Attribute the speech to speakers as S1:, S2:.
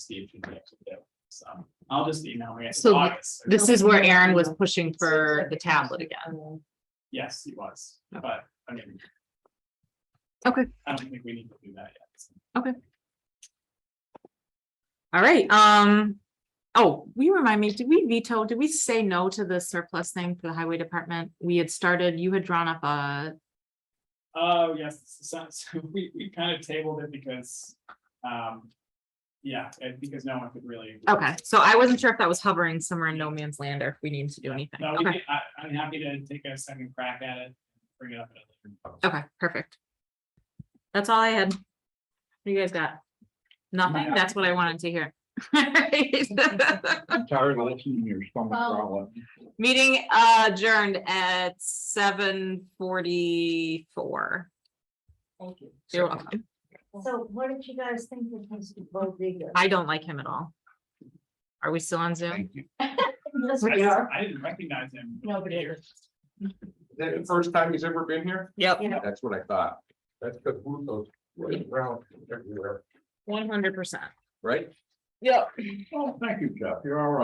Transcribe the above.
S1: Steve can get to do. So um, I'll just email me. It's
S2: So
S1: August.
S2: This is where Aaron was pushing for the tablet again.
S1: Yes, he was,
S2: Okay.
S1: but I mean.
S2: Oh. Okay.
S1: I don't think we need to do that yet. so.
S2: All right, um, oh, we remind me, did we veto, did we say no to the surplus thing for the highway department? We had started, you had drawn up a,
S1: Oh, yes, so, so we, we kind of tabled it because, um, yeah, and because no one could really.
S2: okay, so I wasn't sure if that was hovering somewhere in no man's land or if we needed to do anything.
S1: No, we,
S2: Okay,
S1: can- I, I'm happy to take a second crack at it, bring it up. at a later
S2: okay, perfect. That's all I had. What You guys got? Nothing? That's what I wanted to hear.
S3: Tired of listening to your stomach
S4: Well-
S3: growl.
S2: Meeting adjourned at seven forty-four.
S4: Thank you.
S2: You're welcome.
S4: So what did you guys think of Mr. Bodega?
S2: I don't like him at all. Are we still on Zoom?
S3: Thank you.
S4: Yes,
S1: I
S4: we
S1: just-
S4: are.
S1: I didn't recognize him.
S4: Nobody is.
S3: Is that the first time he's ever been here?
S2: Yep,
S3: That's what I thought. That's because Bruno's running around everywhere,
S2: one hundred percent.
S3: right?
S2: Yep.
S3: Oh, thank you, Jeff. You're all right.